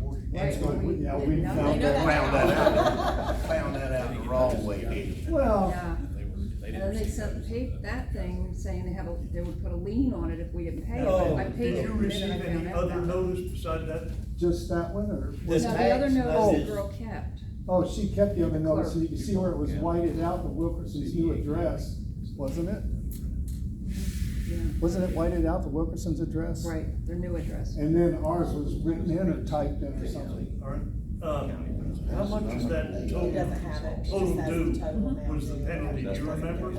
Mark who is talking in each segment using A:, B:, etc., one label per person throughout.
A: And it's
B: Right,
A: gonna-
B: we-
A: yeah,
B: we
A: we
B: did not
A: found
B: know
A: that
C: Found that out,
B: out.
C: found that out the wrong way, didn't you?
A: Well,
B: Yeah.
D: They were, they
B: And
D: didn't.
B: then they
D: receive
B: sent the
D: those,
B: pa-
D: uh,
B: that thing saying they have a, they would put a lien on it if we didn't pay it, but
E: Oh,
B: I paid
E: did
B: it
E: you
B: and
E: receive
B: then I found
E: any
B: out.
E: other
B: about it.
E: notice beside that?
A: just that one, or,
B: No,
F: This
B: the other notice
F: tax,
B: the
F: that's-
B: girl kept.
A: oh, she kept the other
B: The
A: notice, so
B: clerk.
A: you can see where it was whited out, the Wilkerson's new address, wasn't it?
B: Yeah.
A: Wasn't it whited out, the Wilkerson's address?
B: Right, their new address.
A: And then ours was written in or typed in or something.
E: All right, um, how much is that total?
F: He doesn't have it, she
E: Total
F: just has the
E: due
F: total amount.
E: was the penalty, do you remember?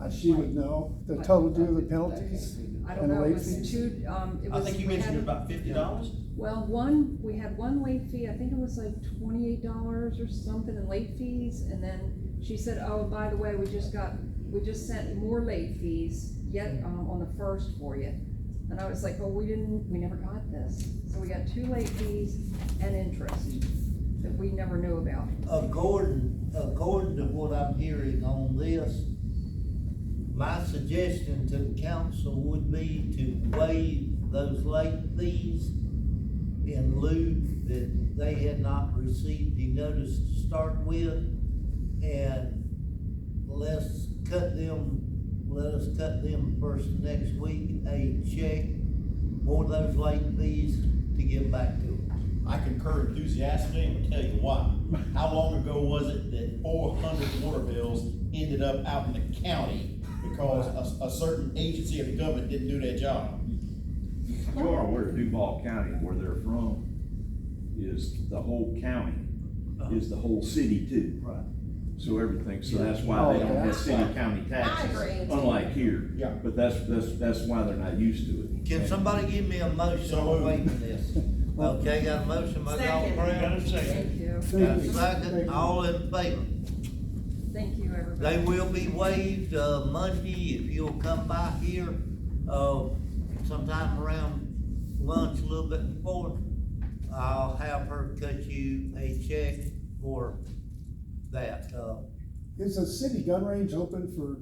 A: Uh, She would know, the total due of the penalties
B: I don't
A: and the
B: know, it
A: late
B: was
A: fees.
B: two, um, it
F: I
B: was.
F: think you
B: we
F: mentioned
B: had-
F: about fifty dollars?
B: Well, one, we had one late fee, I think it was like twenty-eight dollars or something in late fees, and then she said, oh, by the way, we just got, we just sent more late fees yet, um, on the first for you. And I was like, well, we didn't, we never got this, so we got two late fees and interest that we never knew about.
G: According, according to what I'm hearing on this, my suggestion to the council would be to waive those late fees in lieu that they had not received the notice to start with, and let's cut them, let us cut them first next week, a check for those late fees to give back to them.
H: I concur enthusiastically and will tell you why. How long ago was it that four hundred water bills ended up out in the county because a, a certain agency of government didn't do their job?
I: You are aware Duval County, where they're from, is the whole county, is the whole city too.
G: Right.
I: So everything, so that's why they don't have city county taxes,
C: I agree.
I: unlike here.
H: Yeah.
I: But that's, that's, that's why they're not used to it.
G: Can somebody give me a motion
H: So
G: on
H: moved.
G: waiving this? Okay, got a motion by Dr.
F: Second.
G: Brown,
E: Got a second?
B: Thank you,
G: got
A: Thank
G: a
A: you.
G: second, all in favor?
B: thank you, everybody.
G: They will be waived, uh, Monday, if you'll come by here, uh, sometime around lunch, a little bit before. I'll have her cut you a check for that, uh,
A: Is the city gun range open for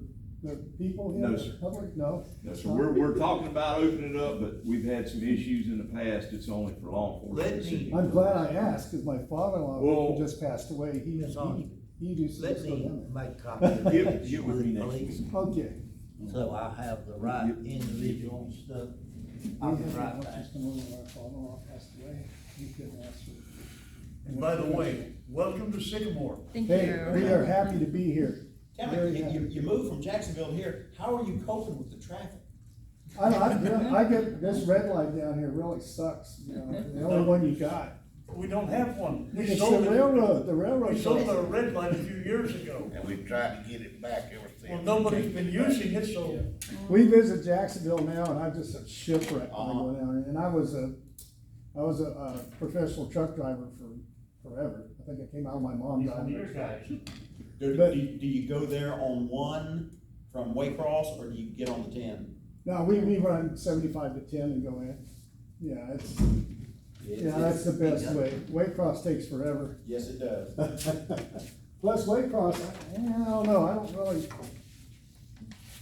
A: the people here?
I: No,
A: the
I: sir.
A: Public, no?
I: So we're, we're talking about opening it up, but we've had some issues in the past, it's only for law
G: Let me-
I: enforcement.
A: I'm glad I asked, cause my father-in-law
I: Well-
A: who just passed away, he,
G: Yes,
A: he,
G: I'm-
A: he used to
G: let
A: just go
G: me
A: down there.
G: make a copy of
I: Give-
G: this
I: give
G: with
I: with me
G: the
I: next
G: police,
A: Okay.
G: so I have the right individual and stuff. I'll be
A: We had
G: right
A: one
G: back.
A: just a moment where I thought, oh, I passed away. He couldn't answer.
E: And by the way, welcome to Sycamore.
B: Thank you.
A: Hey, we are happy to be here.
H: Tell
A: Very
H: me, you- you,
A: happy.
H: you moved from Jacksonville to here, how are you coping with the traffic?
A: I, I, I get, this red light down here really sucks, you know, the only one you got.
E: We don't have one. We
A: It's the
E: sold it-
A: railroad, the
E: We
A: railroad.
E: sold our red light a few years ago.
C: And we've tried to get it back ever since.
E: Well, nobody's been using it, so
A: We visit Jacksonville now, and I'm just a shipwreck when I
E: Uh-huh.
A: go down there, and I was a, I was a, uh professional truck driver for forever, I think I came out of my mom
E: these are
A: down
E: your
A: there.
E: guys.
H: Do,
A: But-
H: do, do you go there on one from Waycross, or do you get on the ten?
A: No, we, we run seventy-five to ten and go in, yeah, it's, yeah, that's the best way, Waycross takes forever.
H: Yes, it does.
A: Plus Waycross, I, I don't know, I don't really.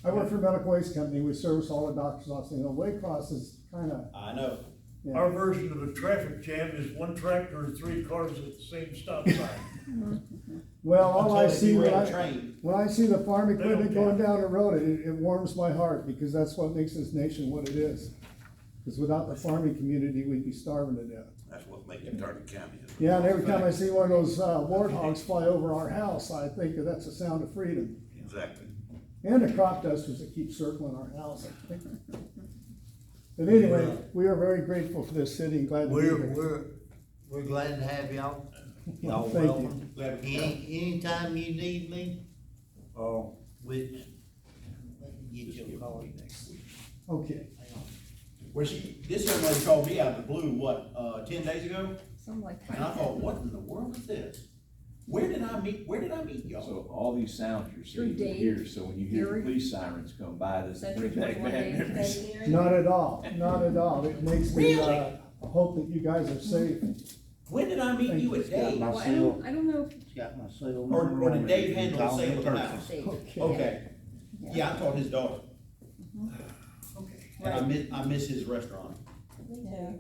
A: I work for a medical waste company, we service all the doctor's offices, you know, Waycross is kinda,
H: I know.
A: yeah.
E: Our version of a traffic jam is one tractor and three cars at the same stop sign.
A: Well, all I
H: Until if
A: see
H: you
A: when
H: were in a
A: I,
H: Train,
A: when I see the farm
E: don't
A: equipment
E: care.
A: going down the road, it, it warms my heart, because that's what makes this nation what it is. Because without the farming community, we'd be starving to death.
C: That's what making Turner County is.
A: Yeah, and every time I see one of those, uh, warthogs fly over our house, I think that that's a sound of freedom.
C: Exactly.
A: And the crop dusters that keep circling our house, I think. But anyway, we are very grateful for this city and glad to be
G: We're,
A: here.
G: we're, we're glad to have y'all. Y'all
A: Thank you.
G: welcome. Any, anytime you need me, or
A: Oh.
G: which, let me get your call next week.
A: Okay,
H: where she, this young lady called me out of the blue, what, uh, ten days ago?
B: Something like that.
H: And I thought, what in the world is this? Where did I meet, where did I meet y'all?
I: So all these sounds you're
B: Through
I: seeing, you
B: Dave,
I: hear, so when you hear
B: Gary.
I: the police sirens come by, it doesn't
B: Century
I: bring back
B: twenty-one
I: bad
B: days.
I: memories.
A: not at all, not at all. It makes me, uh, hope that you guys are safe.
H: When did I meet you at Dave?
B: Well, I don't, I don't know if
G: Got my cell
H: Or, or did Dave handle the sale of the house?
B: they.
H: Okay, yeah, I called his daughter.
E: Okay.
H: And I miss, I miss his restaurant.
F: Yeah.